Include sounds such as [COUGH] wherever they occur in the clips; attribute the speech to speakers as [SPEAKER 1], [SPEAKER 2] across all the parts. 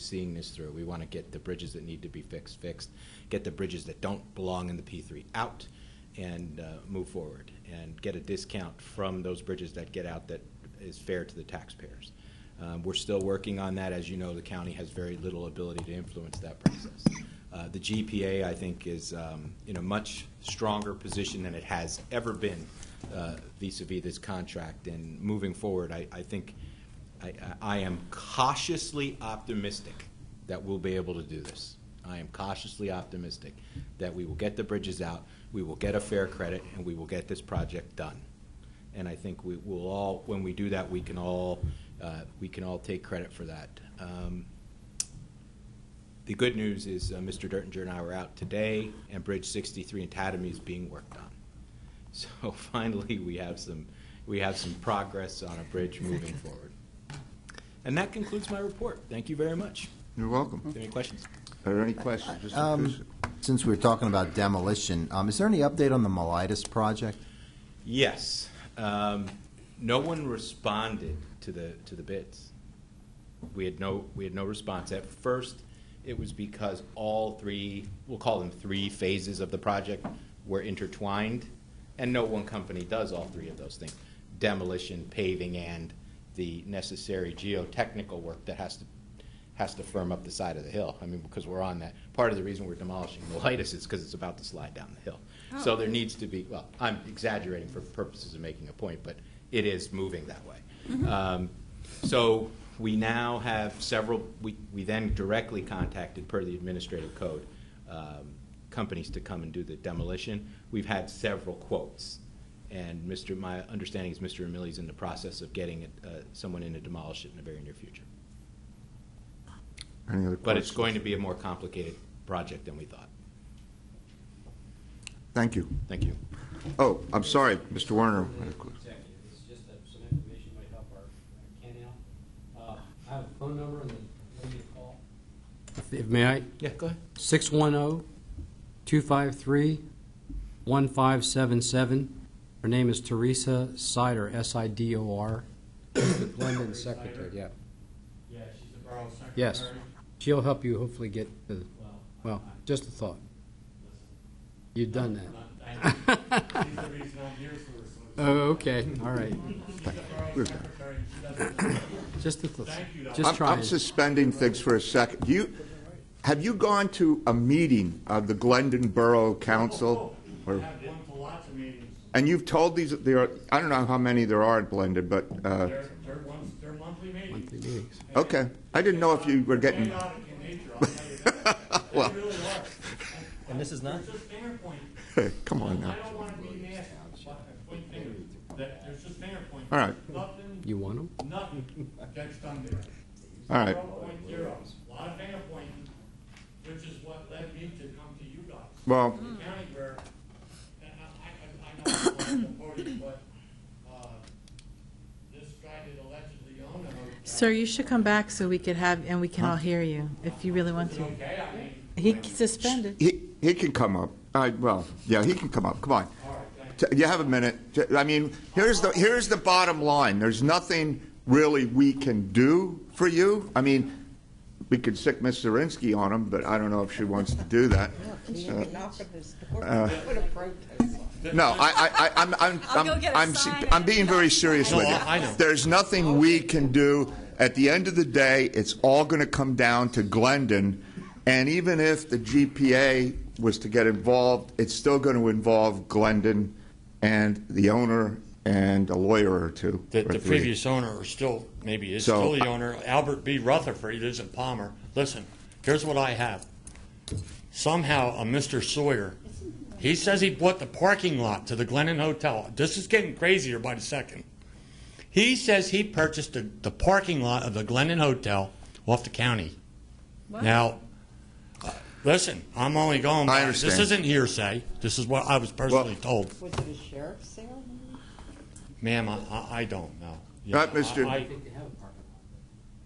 [SPEAKER 1] seeing this through. We want to get the bridges that need to be fixed fixed, get the bridges that don't belong in the P3 out, and uh, move forward and get a discount from those bridges that get out that is fair to the taxpayers. Um, We're still working on that. As you know, the county has very little ability to influence that process. Uh, The GPA, I think, is um, in a much stronger position than it has ever been uh, vis-à-vis this contract. And moving forward, I I think, I- I I am cautiously optimistic that we'll be able to do this. I am cautiously optimistic that we will get the bridges out, we will get a fair credit, and we will get this project done. And I think we will all, when we do that, we can all, uh, we can all take credit for that. Um, The good news is uh, Mr. Dertinger and I were out today, and Bridge 63 in Tatamy is being worked on. [LAUGHS] So finally, we have some, we have some progress on a bridge moving forward. And that concludes my report. Thank you very much.
[SPEAKER 2] You're welcome.
[SPEAKER 1] Any questions?
[SPEAKER 2] Are there any questions? Mr.
[SPEAKER 3] Um,
[SPEAKER 2] Kuzic?
[SPEAKER 3] Since we're talking about demolition, um, is there any update on the Melitus project?
[SPEAKER 1] Yes. Um, no one responded to the to the bids. We had no we had no response. At first, it was because all three we'll call them three phases of the project were intertwined, and no one company does all three of those things: demolition, paving, and the necessary geotechnical work that has to has to firm up the side of the hill. I mean, because we're on that. Part of the reason we're demolishing the lightest is because it's about to slide down the hill. So there needs to be, well, I'm exaggerating for purposes of making a point, but it is moving that way. Um, So we now have several, we, we then directly contacted, per the administrative code, um, companies to come and do the demolition. We've had several quotes. And Mr., my understanding is Mr. Emili's in the process of getting uh, someone in to demolish it in the very near future.
[SPEAKER 2] Any other
[SPEAKER 1] But it's
[SPEAKER 2] questions?
[SPEAKER 1] going to be a more complicated project than we thought.
[SPEAKER 2] Thank you.
[SPEAKER 1] Thank you.
[SPEAKER 2] Oh, I'm sorry, Mr. Werner.
[SPEAKER 4] executive, it's just that some information might help our our can out. Uh, I have a phone number and the lady to call. If- May I? oh,
[SPEAKER 1] Yeah, go ahead.
[SPEAKER 4] 610-253-1577. Her name is Teresa Sidor, S-I-D-O-R. London Secretary, yeah.
[SPEAKER 5] Yeah, she's the borough secretary.
[SPEAKER 4] Yes. She'll help you hopefully get the,
[SPEAKER 5] Well,
[SPEAKER 4] well, just a thought.
[SPEAKER 5] listen,
[SPEAKER 4] You've done
[SPEAKER 5] not,
[SPEAKER 4] that.
[SPEAKER 2] [LAUGHS]
[SPEAKER 5] I, she's the reason I'm here for, so. it's-
[SPEAKER 2] Uh,
[SPEAKER 4] Oh, okay, all right.
[SPEAKER 5] She's the borough secretary, and she
[SPEAKER 2] [LAUGHS]
[SPEAKER 5] doesn't.
[SPEAKER 4] Just a thought.
[SPEAKER 5] Thank you,
[SPEAKER 4] Just
[SPEAKER 2] I'm,
[SPEAKER 4] trying.
[SPEAKER 2] I'm suspending things for a second. You, have you gone to a meeting of the Glendon Borough Council?
[SPEAKER 5] Oh, I
[SPEAKER 2] Or-
[SPEAKER 5] have one to lots of meetings.
[SPEAKER 2] And you've told these, there are, I don't know how many there are at Glendon, but, uh,
[SPEAKER 5] They're, they're ones, they're monthly meetings.
[SPEAKER 2] okay. I didn't know if you were getting, [LAUGHS]
[SPEAKER 5] Chaotic in nature, I'll tell you that.
[SPEAKER 2] Well.
[SPEAKER 5] They really are.
[SPEAKER 6] And this is not-
[SPEAKER 5] There's just finger pointing.
[SPEAKER 2] come on now.
[SPEAKER 5] I don't wanna be nasty, but I point fingers. That- There's just finger pointing.
[SPEAKER 2] All right.
[SPEAKER 5] Nothing,
[SPEAKER 4] You want them?
[SPEAKER 5] nothing gets done there.
[SPEAKER 2] All right.
[SPEAKER 5] Zero point zero, a lot of finger pointing, which is what led me to come to you guys.
[SPEAKER 2] Well,
[SPEAKER 5] The county where, and I, I, I know I'm not voting, but, uh, this guy that allegedly owned the hotel.
[SPEAKER 7] Sir, you should come back so we could have, and we can all hear you, if you really want
[SPEAKER 5] Is it
[SPEAKER 7] to.
[SPEAKER 5] okay? I mean,
[SPEAKER 7] He suspended.
[SPEAKER 2] he, he can come up. All right, well, yeah, he can come up. Come on.
[SPEAKER 5] all right, thank you.
[SPEAKER 2] T- You have a minute. T- I mean, here's the, here's the bottom line. There's nothing really we can do for you. I mean, we could sick Ms. Zirinsky on him, but I don't know if she wants to do that. Uh, No, I, I, I, I'm, I'm,
[SPEAKER 8] I'll go get a
[SPEAKER 2] I'm,
[SPEAKER 8] sign
[SPEAKER 2] I'm being very serious with you.
[SPEAKER 5] I know.
[SPEAKER 2] There's nothing we can do. At the end of the day, it's all going to come down to Glendon. And even if the GPA was to get involved, it's still going to involve Glendon and the owner and a lawyer or two.
[SPEAKER 9] The,
[SPEAKER 2] or
[SPEAKER 9] the
[SPEAKER 2] three.
[SPEAKER 9] previous owner, or still, maybe is
[SPEAKER 2] So,
[SPEAKER 9] still the
[SPEAKER 2] I-
[SPEAKER 9] owner, Albert B. Rutherford, he lives in Palmer. Listen, here's what I have. Somehow, a Mr. Sawyer, he says he bought the parking lot to the Glennon Hotel. This is getting crazier by the second. He says he purchased the, the parking lot of the Glennon Hotel off the county. Now, uh, listen, I'm only going by,
[SPEAKER 2] I understand.
[SPEAKER 9] this isn't hearsay. This is what I was personally told.
[SPEAKER 8] Was it a sheriff's sale?
[SPEAKER 9] Ma'am, I, I, I don't know. You
[SPEAKER 2] Right,
[SPEAKER 9] know, I-
[SPEAKER 2] Mr.
[SPEAKER 9] I-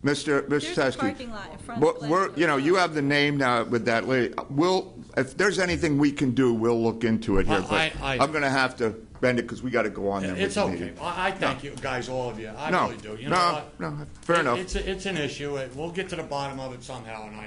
[SPEAKER 2] Mr. Mr.
[SPEAKER 8] There's a
[SPEAKER 2] Teske.
[SPEAKER 8] parking lot in front
[SPEAKER 2] Well,
[SPEAKER 8] of.
[SPEAKER 2] we're, you know, you have the name now with that lady. We'll, if there's anything we can do, we'll look into it here.
[SPEAKER 9] I-
[SPEAKER 2] But
[SPEAKER 9] I- I-
[SPEAKER 2] I'm going to have to suspend it because we got to go on then with
[SPEAKER 5] It's
[SPEAKER 2] the
[SPEAKER 5] okay.
[SPEAKER 2] meeting.
[SPEAKER 5] I, I thank you guys, all of you. I
[SPEAKER 2] No,
[SPEAKER 5] really do. You know
[SPEAKER 2] no,
[SPEAKER 5] what?
[SPEAKER 2] no, fair
[SPEAKER 5] It-
[SPEAKER 2] enough.
[SPEAKER 5] It's, a- it's an issue. It- We'll get to the bottom of it somehow, and I